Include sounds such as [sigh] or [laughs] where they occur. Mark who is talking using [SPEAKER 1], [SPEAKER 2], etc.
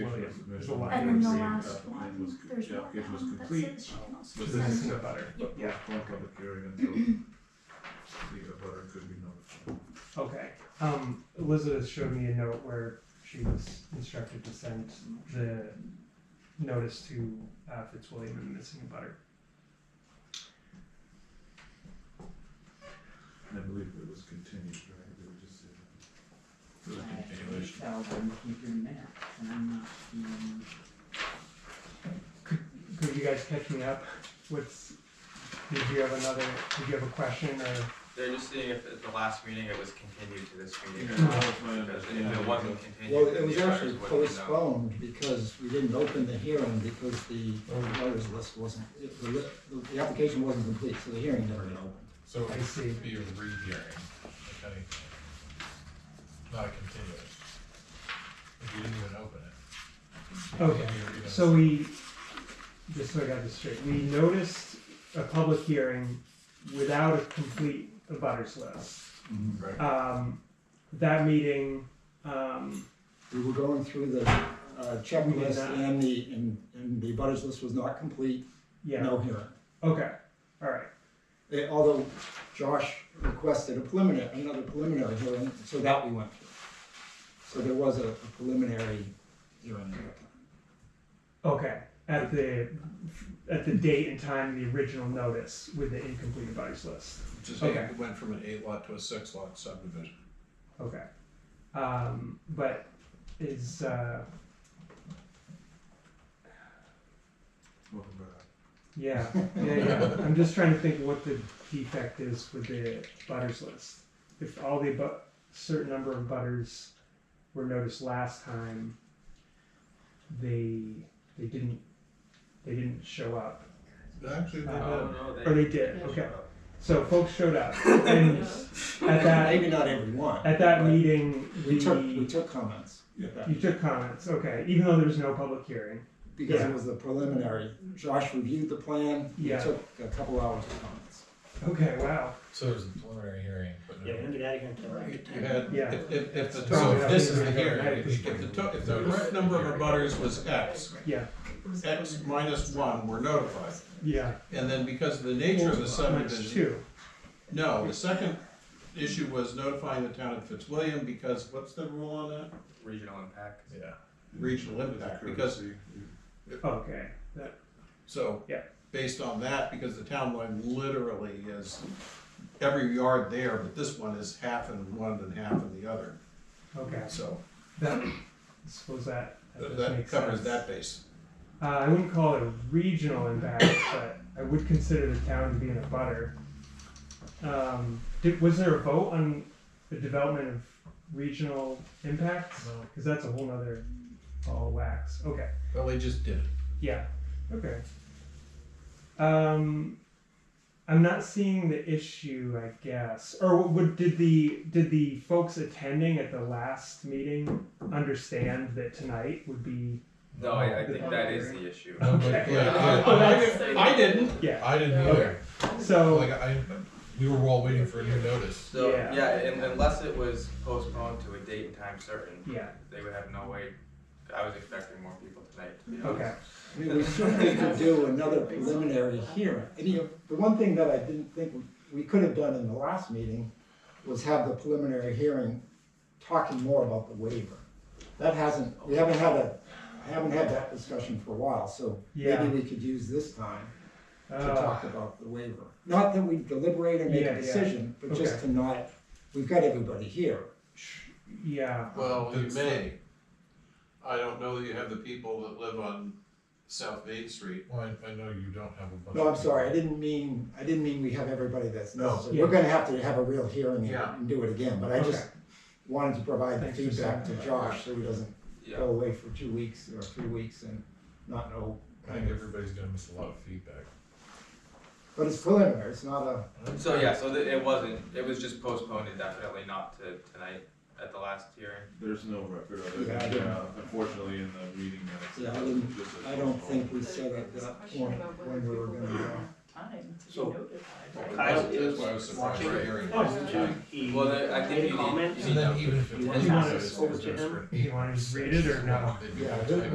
[SPEAKER 1] Well, yeah,
[SPEAKER 2] So
[SPEAKER 1] the
[SPEAKER 2] I
[SPEAKER 3] And then the
[SPEAKER 2] agree,
[SPEAKER 3] last
[SPEAKER 1] uh, it
[SPEAKER 3] one,
[SPEAKER 1] was-
[SPEAKER 3] there's
[SPEAKER 1] yeah,
[SPEAKER 3] more Oh,
[SPEAKER 1] it was
[SPEAKER 3] down that
[SPEAKER 1] complete,
[SPEAKER 3] says she can also
[SPEAKER 1] But
[SPEAKER 3] send.
[SPEAKER 1] this is a butter,
[SPEAKER 3] Yeah.
[SPEAKER 1] but yeah, one public hearing
[SPEAKER 3] [clears throat]
[SPEAKER 1] until the butter could be notified.
[SPEAKER 2] Okay, um, Elizabeth showed me a note where she was instructed to send the notice to, uh, Fitzwilliam and missing a butter.
[SPEAKER 1] And I believe it was continued, right, they would just say that. It was
[SPEAKER 4] I
[SPEAKER 1] continuation.
[SPEAKER 4] tell them to keep your map, and I'm not being,
[SPEAKER 2] Could you guys catch me up? What's, did you have another, did you have a question or,
[SPEAKER 5] They're just seeing if at the last meeting it was continued to this meeting or
[SPEAKER 1] That
[SPEAKER 5] not,
[SPEAKER 1] was my
[SPEAKER 5] because if it
[SPEAKER 1] understanding.
[SPEAKER 5] wasn't continued.
[SPEAKER 6] Well, it
[SPEAKER 5] then
[SPEAKER 6] was
[SPEAKER 5] the abutters
[SPEAKER 6] actually
[SPEAKER 5] wouldn't know.
[SPEAKER 6] postponed because we didn't open the hearing because the
[SPEAKER 2] Mm.
[SPEAKER 6] voters list wasn't, the, li- the application wasn't complete, so the hearing never got opened.
[SPEAKER 7] So
[SPEAKER 2] I
[SPEAKER 7] it
[SPEAKER 2] see.
[SPEAKER 7] could be a rehearing, if anything, not a continuance. If you didn't even open it.
[SPEAKER 2] okay. So we, just so I got this straight, we noticed a public hearing without a complete abutters list.
[SPEAKER 6] Mhm.
[SPEAKER 7] Right.
[SPEAKER 2] Um, that meeting, um,
[SPEAKER 6] We were going through the uh, checklist and the, and, and the butters list was not complete,
[SPEAKER 2] yeah.
[SPEAKER 6] no hearing.
[SPEAKER 2] Okay, all right.
[SPEAKER 6] They- Although Josh requested a preliminary, another preliminary hearing, so that we went through. So there was a a preliminary hearing.
[SPEAKER 2] Okay, at the, at the date and time of the original notice with the incomplete abutters list,
[SPEAKER 7] Just
[SPEAKER 2] Okay.
[SPEAKER 7] it went from an eight lot to a six lot subdivision.
[SPEAKER 2] okay. Um, but is, uh,
[SPEAKER 1] Welcome back.
[SPEAKER 2] yeah, yeah, yeah, I'm just trying to think what the defect is with the butters list. If all the bu- certain number of butters were noticed last time, they, they didn't, they didn't show up,
[SPEAKER 7] Actually, they
[SPEAKER 2] Uh,
[SPEAKER 7] did.
[SPEAKER 5] Oh, no,
[SPEAKER 2] or
[SPEAKER 5] they.
[SPEAKER 2] they did,
[SPEAKER 5] they
[SPEAKER 2] okay,
[SPEAKER 5] showed up.
[SPEAKER 2] so folks showed up, and at that,
[SPEAKER 6] Maybe not everyone.
[SPEAKER 2] At that meeting,
[SPEAKER 6] We took, we
[SPEAKER 2] we-
[SPEAKER 6] took comments.
[SPEAKER 2] you took comments, okay, even though there was no public hearing.
[SPEAKER 6] because
[SPEAKER 2] Yeah.
[SPEAKER 6] it was the preliminary. Josh reviewed the plan. He
[SPEAKER 2] Yeah.
[SPEAKER 6] took a couple hours of comments.
[SPEAKER 2] Okay, wow.
[SPEAKER 7] So there's a preliminary hearing, but no.
[SPEAKER 4] Right.
[SPEAKER 7] You had,
[SPEAKER 2] Yeah.
[SPEAKER 7] if, if, if the
[SPEAKER 2] So
[SPEAKER 7] total,
[SPEAKER 2] that
[SPEAKER 7] this
[SPEAKER 2] was
[SPEAKER 7] is the
[SPEAKER 2] gonna go
[SPEAKER 7] hearing,
[SPEAKER 2] back
[SPEAKER 7] if
[SPEAKER 2] this
[SPEAKER 7] if the, to- if the correct number of abutters was X,
[SPEAKER 2] Yeah,
[SPEAKER 7] X minus one were notified.
[SPEAKER 2] yeah.
[SPEAKER 7] And then because of the nature of the subdivision,
[SPEAKER 2] Minus two.
[SPEAKER 7] No, the second issue was notifying the town of Fitzwilliam because what's the rule on that?
[SPEAKER 5] Regional impact.
[SPEAKER 7] Yeah. Regional impact, because,
[SPEAKER 1] Courtesy, you-
[SPEAKER 2] Okay, that,
[SPEAKER 7] so.
[SPEAKER 2] Yeah.
[SPEAKER 7] Based on that, because the town line literally is every yard there, but this one is half in one and half in the other,
[SPEAKER 2] okay.
[SPEAKER 7] so
[SPEAKER 2] That, suppose that, that does
[SPEAKER 7] that
[SPEAKER 2] make sense.
[SPEAKER 7] covers that base.
[SPEAKER 2] Uh, I wouldn't call it a regional impact, but I would consider the town to be in a butter. Um, did, was there a vote on the development of regional impacts?
[SPEAKER 7] No.
[SPEAKER 2] Cause that's a whole nother ball of wax, okay.
[SPEAKER 7] Well, they just [laughs] did it.
[SPEAKER 2] Yeah. Okay. Um, I'm not seeing the issue, I guess. Or would did the did the folks attending at the last meeting understand that tonight would be?
[SPEAKER 5] No, I, I think that is the issue.
[SPEAKER 2] Okay.
[SPEAKER 7] Yeah,
[SPEAKER 2] Oh,
[SPEAKER 7] I-
[SPEAKER 2] that's-
[SPEAKER 7] I I didn't,
[SPEAKER 2] Yeah.
[SPEAKER 7] I didn't either,
[SPEAKER 2] So
[SPEAKER 7] like, I, we were all waiting for a new notice.
[SPEAKER 5] So,
[SPEAKER 2] Yeah.
[SPEAKER 5] yeah, and unless it was postponed to a date and time certain,
[SPEAKER 2] yeah.
[SPEAKER 5] they would have no way, I was expecting more people tonight, to be honest.
[SPEAKER 2] Okay.
[SPEAKER 6] I
[SPEAKER 2] [laughs]
[SPEAKER 6] mean, we certainly could do another preliminary hearing. And, you know, the one thing that I didn't think we could have done in the last meeting was have the preliminary hearing talking more about the waiver. That hasn't, we haven't had a, I haven't had that discussion for a while, so
[SPEAKER 2] Yeah.
[SPEAKER 6] maybe we could use this time to
[SPEAKER 2] Uh,
[SPEAKER 6] talk about the waiver. Not that we deliberate and make
[SPEAKER 2] Yeah,
[SPEAKER 6] a
[SPEAKER 2] yeah.
[SPEAKER 6] decision, but just
[SPEAKER 2] Okay.
[SPEAKER 6] to not, we've got everybody here.
[SPEAKER 2] sh- yeah.
[SPEAKER 7] Well, you
[SPEAKER 1] It's-
[SPEAKER 7] may. I don't know that you have the people that live on South Main Street. Well, I, I know you don't have a bunch.
[SPEAKER 6] No, I'm sorry, I didn't mean, I didn't mean we have everybody that's
[SPEAKER 7] No.
[SPEAKER 6] necessary. We're gonna have to have a real hearing and-
[SPEAKER 7] Yeah.
[SPEAKER 6] and do it again, but I just wanted to provide the
[SPEAKER 2] Thanks for
[SPEAKER 6] feedback to
[SPEAKER 2] saying that.
[SPEAKER 6] Josh so he doesn't go
[SPEAKER 5] Yeah,
[SPEAKER 6] away for two weeks or three weeks and not know.
[SPEAKER 7] I think everybody's gonna miss a lot of feedback.
[SPEAKER 6] But it's preliminary, it's not a,
[SPEAKER 5] so, yeah, so th- it wasn't, it was just postponed and definitely not to tonight at the last hearing.
[SPEAKER 1] There's no record of it,
[SPEAKER 6] Yeah, I didn't-
[SPEAKER 1] yeah, unfortunately, in the meeting minutes. it
[SPEAKER 6] Yeah, I
[SPEAKER 1] was
[SPEAKER 6] didn't-
[SPEAKER 1] just a
[SPEAKER 6] I don't
[SPEAKER 1] phone
[SPEAKER 6] think
[SPEAKER 1] call.
[SPEAKER 6] we said at that point when we were gonna.
[SPEAKER 4] time to
[SPEAKER 8] So-
[SPEAKER 4] be notified.
[SPEAKER 8] Kyle
[SPEAKER 7] That's why I was
[SPEAKER 8] is
[SPEAKER 7] surprised by
[SPEAKER 8] watching.
[SPEAKER 7] hearing.
[SPEAKER 8] Oh,
[SPEAKER 5] Well, then I think you need,
[SPEAKER 8] Any comments?
[SPEAKER 5] you need
[SPEAKER 7] And then even if it
[SPEAKER 8] Over
[SPEAKER 7] was
[SPEAKER 8] to him.
[SPEAKER 2] You want to just read it or no?
[SPEAKER 7] They'd be
[SPEAKER 6] Yeah,
[SPEAKER 7] all
[SPEAKER 6] who-
[SPEAKER 7] typed